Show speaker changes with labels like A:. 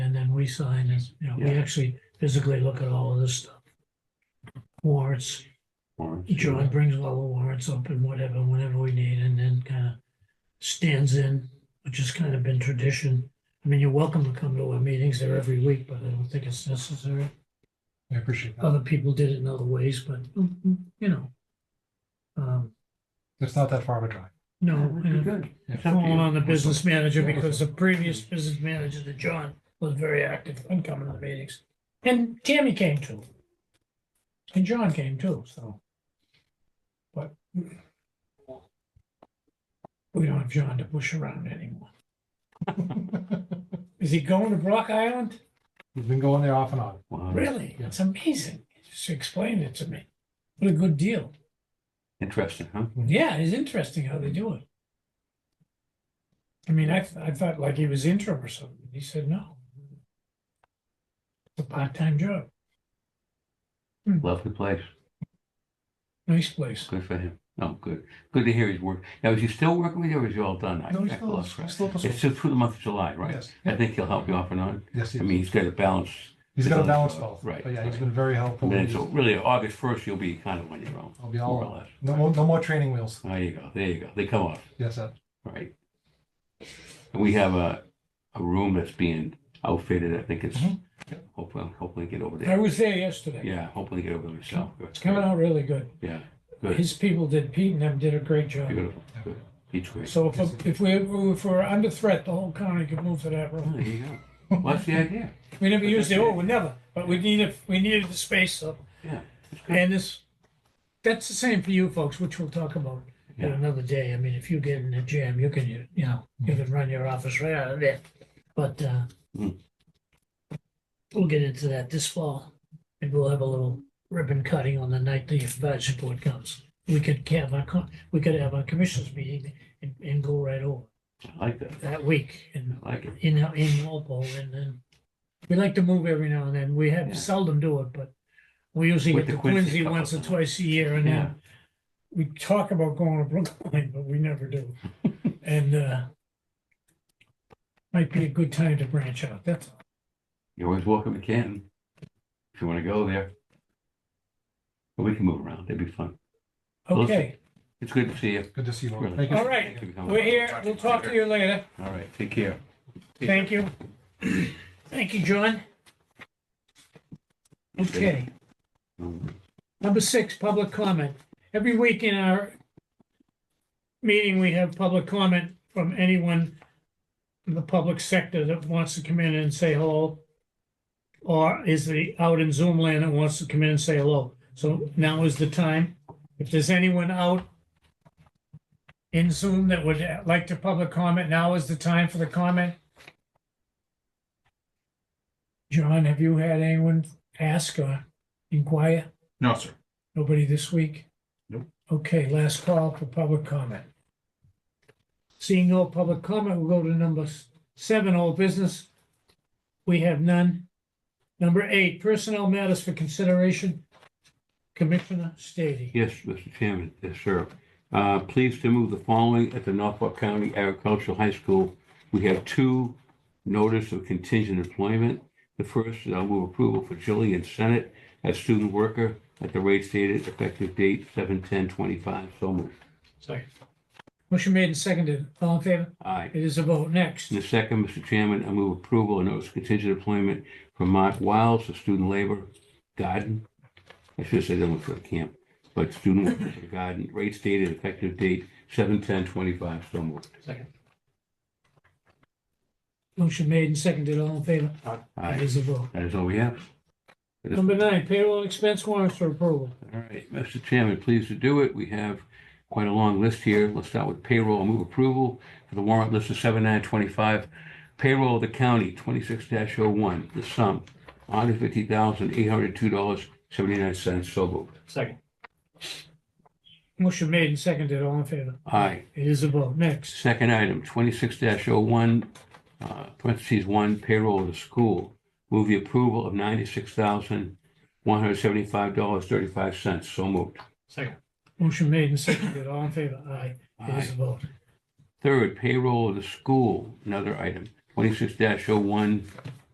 A: we sign is, you know, we
B: Yeah.
A: actually physically look at all of this stuff. Warrants,
B: Warrants,
A: John brings all the warrants up and whatever, whenever we need, and then kind of stands in, which has kind of been tradition. I mean, you're welcome to come to our meetings there every week, but I don't think it's necessary.
C: I appreciate that.
A: Other people did it in other ways, but, you know. Um,
C: It's not that far of a drive.
A: no,
B: Yeah, that'd be
A: and-
B: good. It's up to
A: Calling
B: you.
A: on the business manager
C: Yeah.
A: because the previous business manager, the John, was very active in coming to the meetings. And Tammy came too. And John came too, so. But we don't have John to push around anymore. Is he going to Brock Island?
C: We've been going there off and on.
B: Wow.
A: Really?
C: Yeah.
A: It's amazing. He Just explained it to me. What a good deal.
B: Interesting, huh?
A: Yeah, it's interesting how they do it. I mean, I, th- I thought like he was interim or something. He said, no. It's a part-time job.
B: Lovely place.
A: Nice place.
B: Good for him. Oh, good. Good to hear his work. Now, is he still working with you or is he all done? I
C: No, he's
B: I
C: still,
B: lost track.
C: he's still.
B: It's still through the month of July, right?
C: Yes,
B: I think he'll help you off and on.
C: yes, he
B: I
C: is.
B: mean, he's got a balance.
C: he's got a
B: he's-
C: balance both.
B: right,
C: But yeah, he's
B: right.
C: been very helpful.
B: And then, so really, August first, you'll be kind of on your own,
C: I'll be
B: more
C: all,
B: or less.
C: no, more- no more training wheels.
B: There you go. There you go. They come off.
C: Yes, sir.
B: Right. And we have a, a room that's being outfitted, I think it's,
C: Mhm.
B: hopefully, I'm hopefully get over
A: I
B: there.
A: was there yesterday.
B: Yeah, hopefully get over there myself.
A: It's coming out really good.
B: Yeah, good,
A: His people did, Pete and them did a great job.
B: beautiful, good, each great.
A: So if, if we, if we're under threat, the whole county could move to that
B: Oh,
A: room.
B: There you go. Well, that's the idea.
A: We never used it, oh, we never, but we needed, we needed the space, so.
B: Yeah, that's good.
A: And this, that's the same for you folks, which we'll talk about at
B: Yeah.
A: another day. I mean, if you get in a jam, you can, you you know, you can run your office right out of there. But, uh,
B: Mm.
A: we'll get into that this fall. And we'll have a little ribbon cutting on the night the advisory board comes. We could have our, co- we could have our commissioners meeting and, and go right over
B: I like that.
A: that week and
B: I like it.
A: in, in Walpole and then we like to move every now and then. We
B: Yeah.
A: have seldom do it, but we usually
B: With
A: get to
B: the Quincy
A: Quincy
B: couple
A: once or
B: times.
A: twice a year and
B: Yeah.
A: then we talk about going to Brookline, but we never do. And, uh, might be a good time to branch out. That's, all.
B: You're always welcome to Canton, if you want to go there. But we can move around, it'd be fun. Well, listen,
A: okay.
B: It's good to see you.
C: Good to see you. all.
B: Really.
C: Thank you.
A: All right.
B: Thank you for coming.
A: We're here. We'll talk to you later.
B: All right, take care.
A: Thank you. Thank you, John. Okay.
B: Um,
A: Number six, public comment. Every week in our meeting, we have public comment from anyone in the public sector that wants to come in and say hello. Or is the out in Zoom land that wants to come in and say hello. So now is the time. If there's anyone out in Zoom that would like to public comment, now is the time for the comment. John, have you had anyone ask or inquire?
D: No, sir.
A: Nobody this week?
D: Nope.
A: Okay, last call for public comment. Seeing no public comment, we'll go to number s- seven, old business. We have none. Number eight, personnel matters for consideration. Commissioner Stady.
B: Yes, Mr. Chairman, yes, sir. Uh, Pleased to move the following at the Norfolk County Agricultural High School. We have two notice of contingent employment. The first, uh, move approval for Jillian Senate as student worker at the rate stated, effective date seven ten twenty-five. So moved.
A: Motion made and seconded. All in favor?
B: Aye.
A: It is a vote. Next.
B: And the second, Mr. Chairman, I move approval of notice of contingent employment for Mark Wiles, a student labor garden. I should say they went for the camp, but student worker for the garden, rate stated, effective date seven ten twenty-five. So moved.
A: Motion made and seconded. All in favor? It
B: Aye.
A: is a vote.
B: That is all we have. It is-
A: Number nine, payroll expense warrants for approval.
B: All right, Mr. Chairman, pleased to do it. We have quite a long list here. Let's start with payroll. I'll Move approval for the warrant list of seven nine twenty-five. Payroll of the county, twenty-six dash oh one, the sum, one hundred fifty thousand, eight hundred two dollars, seventy-nine cents. So moved.
A: Motion made and seconded. All in favor?
B: Aye.
A: It is a vote. Next.
B: Second item, twenty-six dash oh one, uh, parentheses one, payroll of the school. Move the approval of ninety-six thousand, one hundred seventy-five dollars, thirty-five cents. So moved.
A: Motion made and seconded. All in favor? Aye. It
B: Aye.
A: is a vote.
B: Third, payroll of the school, another item, twenty-six dash oh one,